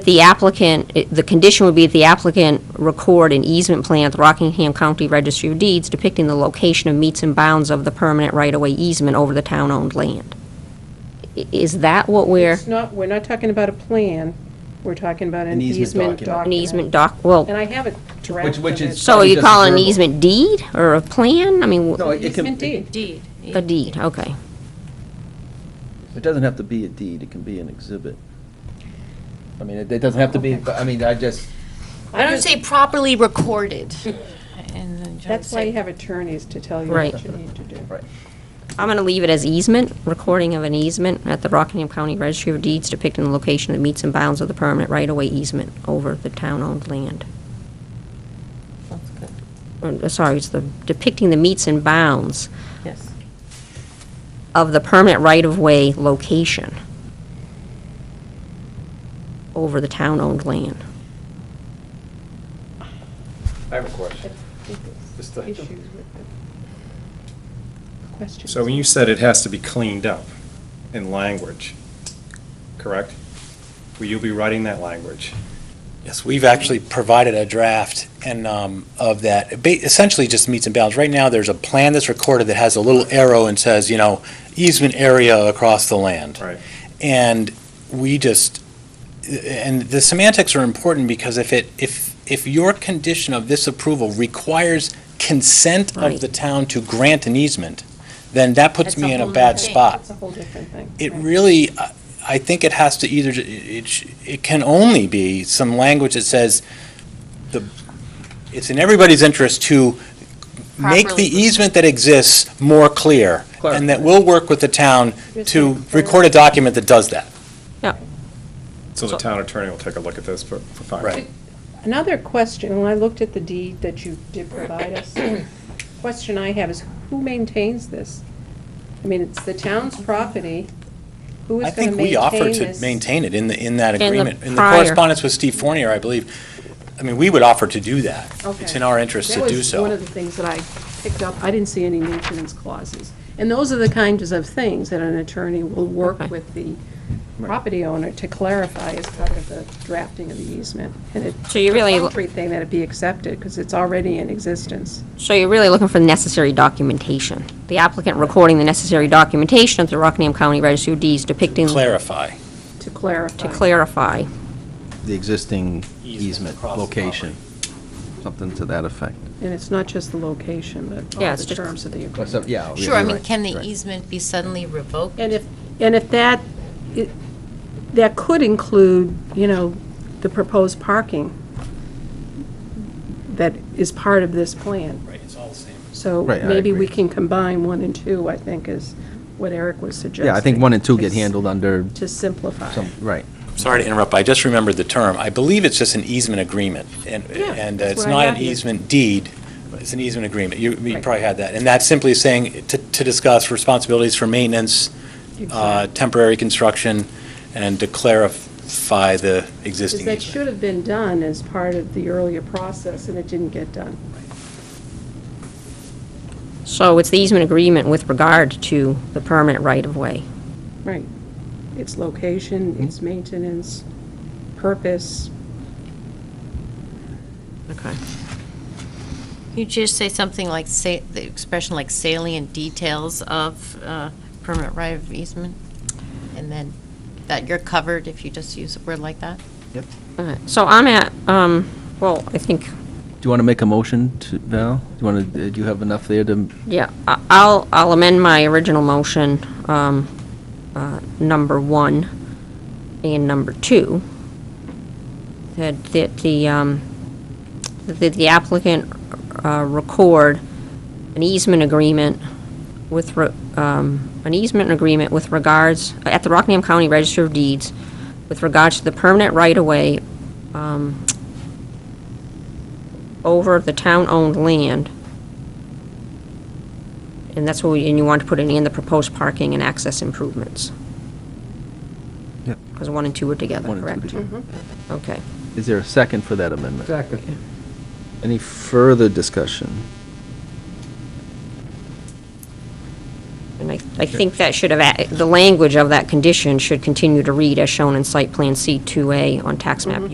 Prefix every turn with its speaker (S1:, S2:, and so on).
S1: The applicant, it- the condition would be the applicant record an easement plan at the Rockingham County Registry of Deeds depicting the location of meets and bounds of the permanent right-of-way easement over the town-owned land. I- Is that what we're,
S2: It's not, we're not talking about a plan, we're talking about an
S3: An easement
S2: easement document.
S3: document.
S1: an easement doc, well,
S2: And I have a draft
S3: Which-
S2: of
S3: which
S2: it.
S3: is-
S1: so are you
S3: Probably
S1: calling an
S3: doesn't
S1: easement deed or a plan? I mean,
S3: No,
S1: w-
S3: it can,
S2: Easement deed.
S4: Deed.
S1: a deed, okay.
S3: it doesn't have to be a deed, it can be an exhibit. I mean, it it doesn't have to be, I mean, I just,
S4: I don't say properly recorded. And then
S2: That's why you have attorneys to tell you what
S1: Right.
S2: you need to do.
S3: right.
S1: I'm going to leave it as easement, recording of an easement at the Rockingham County Registry of Deeds depicting the location of meets and bounds of the permanent right-of-way easement over the town-owned land.
S5: That's good,
S1: Uh, sorry, it's the, depicting the meets and bounds
S5: yes.
S1: of the permanent right-of-way location over the town-owned land.
S6: I have a question. Just a-
S2: Issues with the questions.
S6: So when you said it has to be cleaned up in language, correct? Will you be writing that language?
S7: Yes, we've actually provided a draft and, um, of that, Ba- essentially just meets and bounds. Right now, there's a plan that's recorded that has a little arrow and says, you know, easement area across the land.
S6: Right.
S7: And we just, and the semantics are important because if it, if, if your condition of this approval requires consent
S1: Right.
S7: of the town to grant an easement, then that puts
S4: That's
S7: me
S4: a
S7: in a
S4: whole
S7: bad
S4: nother thing.
S7: spot
S2: It's a whole different thing.
S7: it
S2: right.
S7: really, I- I think it has to either, it, sh- it can only be some language that says the, it's in everybody's interest to make the
S4: Properly.
S7: easement that exists more clear, and that we'll work with the town to record a document that does that.
S6: So the town attorney will take a look at this for, for five.
S7: Right.
S2: Another question, when I looked at the deed that you did provide us, question I have is, who maintains this? I mean, it's the town's property, who
S7: I
S2: is going to
S7: think we
S2: maintain
S7: offered to
S2: this?
S7: maintain it in the, in that
S1: the
S7: agreement. In the
S1: prior-
S7: correspondence with Steve Fournier, I believe, I mean, we would offer to do that. It's
S2: Okay.
S7: in our interest to
S2: That
S7: do
S2: was one
S7: so.
S2: of the things that I picked up. I didn't see any maintenance clauses. And those are the kinds of things that an attorney will
S1: Okay.
S2: work with the property owner to clarify as part of the drafting of the easement. And it's
S1: So you really-
S2: a contrary thing that it be accepted, because it's already in existence.
S1: So you're really looking for the necessary documentation. The applicant recording the necessary documentation at the Rockingham County Registry of Deeds depicting, to
S7: Clarify.
S2: To clarify.
S1: clarify.
S3: The existing
S7: Easement
S3: easement
S7: across the
S3: location, something to that effect.
S2: And it's not just the location, but
S1: Yeah,
S2: all
S1: it's
S2: the
S1: just-
S2: terms of the
S3: Well, so-
S2: agreement.
S3: Yeah. you're
S4: Sure, I mean,
S3: right,
S4: can the
S3: right.
S4: easement be suddenly revoked?
S2: And if, and if that, it- that could include, you know, the proposed parking that is part of this plan.
S7: Right, it's all the same.
S2: So
S3: Right, I
S2: maybe we
S3: agree.
S2: can combine one and two, I think, is what Eric was suggesting.
S3: Yeah, I think one and two get
S2: It's
S3: handled under
S2: To simplify.
S3: some, right.
S7: Sorry to interrupt, but I just remembered the term. I believe it's just an easement agreement, and,
S2: Yeah,
S7: and uh,
S2: that's
S7: it's
S2: what I
S7: not
S2: got
S7: an
S2: here.
S7: easement deed, but it's an easement agreement. You, you
S2: Right.
S7: probably had that. And that's simply saying, to, to discuss responsibilities for maintenance, uh, temporary construction, and to clarify the
S2: Because
S7: existing
S2: that
S7: easement.
S2: should have been done as part of the earlier process, and it didn't get done.
S1: So it's the easement agreement with regard to the permanent right-of-way.
S2: Right. Its
S3: Mm-hmm.
S2: location, its maintenance, purpose.
S1: Okay.
S4: You just say something like, say, the expression like salient details of uh, permanent right of easement? And then that you're covered if you just use a word like that?
S1: So I'm at, um, well, I think,
S3: Do you want to make a motion to, Val? Do you want to, do you have enough there to,
S1: yeah, I- I'll, I'll amend my original motion, um, uh, number one and number two. That, that the, um, that the applicant, uh, record an easement agreement with, re- um, an easement agreement with regards, at the Rockingham County Register of Deeds, with regards to the permanent right-of-way, um, over the town-owned land. And that's what, we- and you want to put it in the proposed parking and access improvements.
S3: Yep.
S1: Because one and two are together,
S3: One and two
S1: correct? Mm-hmm.
S3: together.
S1: Okay.
S3: is there a second for that amendment? Second. Any further discussion?
S1: And I I think that should have,
S3: Mm-hmm.
S1: a- the language of that condition should continue to read as shown in Site Plan C2A on tax map